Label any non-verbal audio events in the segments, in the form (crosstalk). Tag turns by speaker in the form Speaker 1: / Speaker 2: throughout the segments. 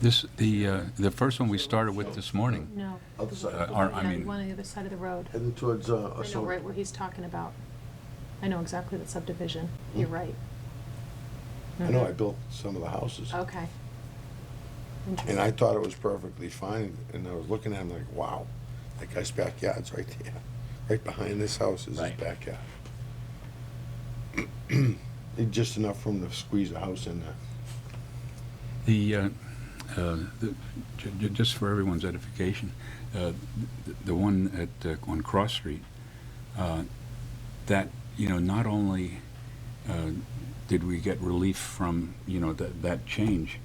Speaker 1: This, the, uh, the first one we started with this morning,
Speaker 2: No.
Speaker 3: Other side.
Speaker 1: Uh, our- I
Speaker 2: Yeah, the
Speaker 1: mean-
Speaker 2: one on the other side of the road.
Speaker 3: heading towards, uh,
Speaker 2: I know right
Speaker 3: Ashland.
Speaker 2: where he's talking about. I know exactly the subdivision. You're right.
Speaker 4: Hmm?
Speaker 2: Mm-hmm.
Speaker 4: I know, I built some of the houses.
Speaker 2: Okay.
Speaker 4: And I
Speaker 2: Interesting.
Speaker 4: thought it was perfectly fine, and I was looking at him like, wow, that guy's backyard's (laughs) right there. Right behind this house is his
Speaker 1: Right.
Speaker 4: backyard. (clears throat) And Just enough room to squeeze a house in there.
Speaker 1: the, uh, uh, the- ju- ju- just for everyone's edification, uh, th- the one at, uh, on Cross Street, uh, that, you know, not only uh, did we get relief from, you know, that, that change,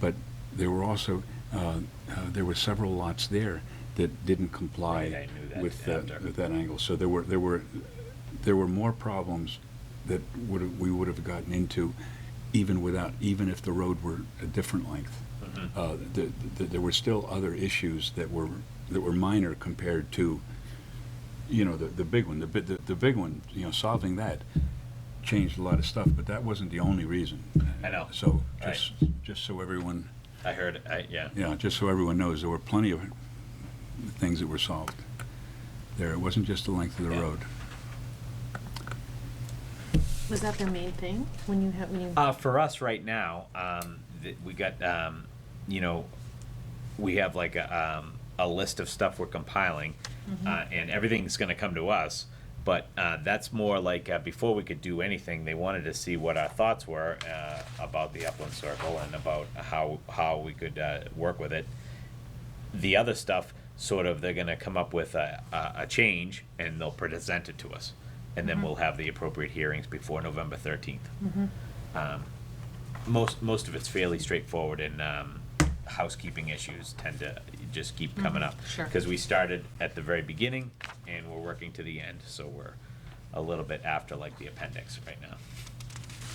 Speaker 1: but there were also, uh, uh, there were several lots there that didn't
Speaker 5: Right, I
Speaker 1: comply
Speaker 5: knew that
Speaker 1: with that,
Speaker 5: after.
Speaker 1: with that angle. So there were, there were, there were more problems that would, we would have gotten into even without, even if the road were a different length. Uh, th- th- There were still other issues that were, that were minor compared to, you know, the, the big one, the, bi- the, the big one, you know, solving that changed a lot of stuff, but that wasn't the only reason.
Speaker 5: I know.
Speaker 1: So,
Speaker 5: Right.
Speaker 1: just, just so everyone,
Speaker 5: I heard, I, yeah.
Speaker 1: yeah, just so everyone knows, there were plenty of things that were solved there. It wasn't just the length of the
Speaker 5: Yeah.
Speaker 1: road.
Speaker 2: Was that their main thing when you had, when you?
Speaker 5: Uh, for us right now, um, th- we got, um, you know, we have like a, um, a list of stuff we're compiling, uh, and everything's going to come to us. But uh, that's more like uh, before we could do anything, they wanted to see what our thoughts were uh, about the Upland Circle and about how how we could uh, work with it. The other stuff, sort of, they're going to come up with a, a, a change and they'll present it to us, and then we'll have the appropriate hearings before November 13th most most of it's fairly straightforward and um, housekeeping issues tend to just keep coming up
Speaker 2: sure.
Speaker 5: because we started at the very beginning and we're working to the end so we're a little bit after like the appendix right now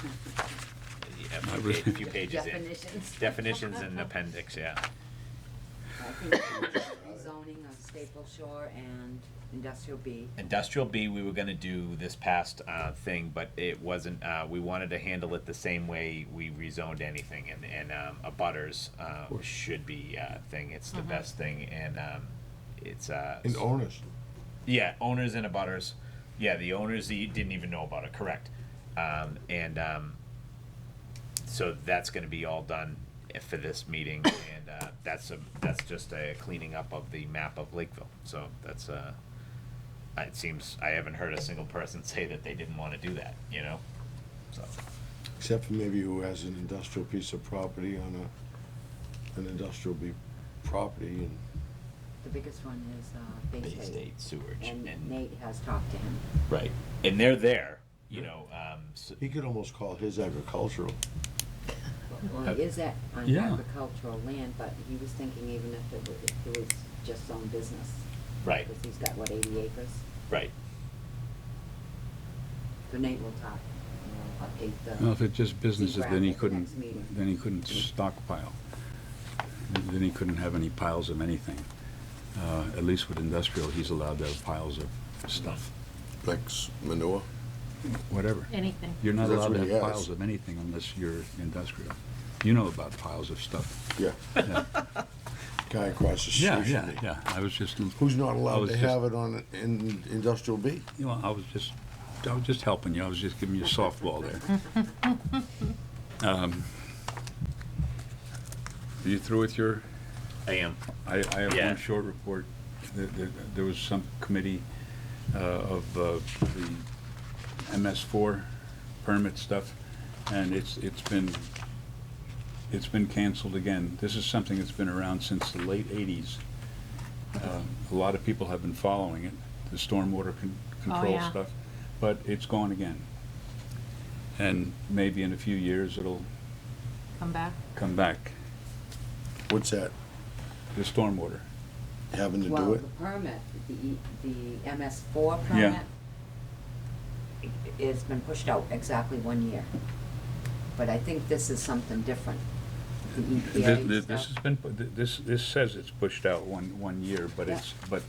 Speaker 5: yeah, a few, pa- a few pages
Speaker 6: Definitions.
Speaker 5: in definitions and appendix yeah
Speaker 6: I think (coughs) rezoning of Staple Shore and Industrial B.
Speaker 5: industrial b we were going to do this past uh, thing but it wasn't uh, we wanted to handle it the same way we rezoned anything and, and um, a butters uh, should be uh, thing it's the best thing and um, it's uh,
Speaker 4: And owners,
Speaker 5: yeah owners and abutters yeah the owners that didn't even know about it correct um, and um, so that's going to be all done for this meeting and uh, that's a that's just a cleaning up of the map of lakeville so that's uh it seems i haven't heard a single person (laughs) say that they didn't want to do that you know so
Speaker 4: except for maybe who has an industrial piece of property on a, an industrial be- property and
Speaker 6: The biggest one is uh, Bay
Speaker 5: bay
Speaker 6: State.
Speaker 5: state sewage and,
Speaker 6: And Nate has talked to him.
Speaker 5: right and they're there you know um, so,
Speaker 4: he could almost call his agricultural.
Speaker 6: Well, he is at, on
Speaker 1: Yeah.
Speaker 6: agricultural land, but he was thinking even if it was, if it was just own business.
Speaker 5: right
Speaker 6: Because he's got, what, eighty acres?
Speaker 5: right
Speaker 6: So Nate will talk, you know, update the.
Speaker 1: Well, if it's just businesses, then he
Speaker 6: Graphic
Speaker 1: couldn't,
Speaker 6: next meeting.
Speaker 1: then he couldn't stockpile. Then he couldn't have any piles of anything. Uh, At least with industrial, he's allowed to have piles of stuff,
Speaker 4: Like manure?
Speaker 1: whatever.
Speaker 2: Anything.
Speaker 1: You're not
Speaker 4: That's
Speaker 1: allowed to
Speaker 4: what he
Speaker 1: have
Speaker 4: has.
Speaker 1: piles of anything unless you're industrial. You know about piles of stuff.
Speaker 4: Yeah,
Speaker 1: Yeah,
Speaker 4: guy across the street.
Speaker 1: yeah,
Speaker 4: from
Speaker 1: yeah,
Speaker 4: me.
Speaker 1: yeah. I was just,
Speaker 4: Who's not
Speaker 1: I
Speaker 4: allowed
Speaker 1: was
Speaker 4: to
Speaker 1: just-
Speaker 4: have it on, in industrial B?
Speaker 1: you know, I was just, I was just helping you. I was just giving you a softball there.
Speaker 4: (laughs)
Speaker 1: Um, Are you through with your
Speaker 5: i am
Speaker 1: I, I have
Speaker 5: Yeah.
Speaker 1: one short report. There, there- there was some committee uh, of uh, the MS4 permit stuff, and it's, it's been, it's been canceled again. This is something that's been around since the late 80s. Uh, A lot of people have been following it, the stormwater con- control
Speaker 2: yeah.
Speaker 1: stuff, but it's gone again. And maybe in a few years, it'll
Speaker 2: Come back.
Speaker 1: come back,
Speaker 4: What's that,
Speaker 1: the stormwater.
Speaker 4: having to
Speaker 6: Well,
Speaker 4: do it?
Speaker 6: the permit, the, E- the MS four permit.
Speaker 1: Yeah.
Speaker 6: i- It's been pushed out exactly one year. But I think this is something different. The E
Speaker 1: Th- th-
Speaker 6: EPA
Speaker 1: This has
Speaker 6: stuff.
Speaker 1: been, pu- th- this, this says it's pushed out one, one year, but
Speaker 6: Yeah.
Speaker 1: it's, but,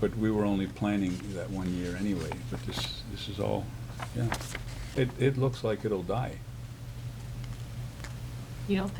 Speaker 1: but we were only planning that one year anyway, but this, this is all, yeah. It, it looks like it'll die.
Speaker 2: You don't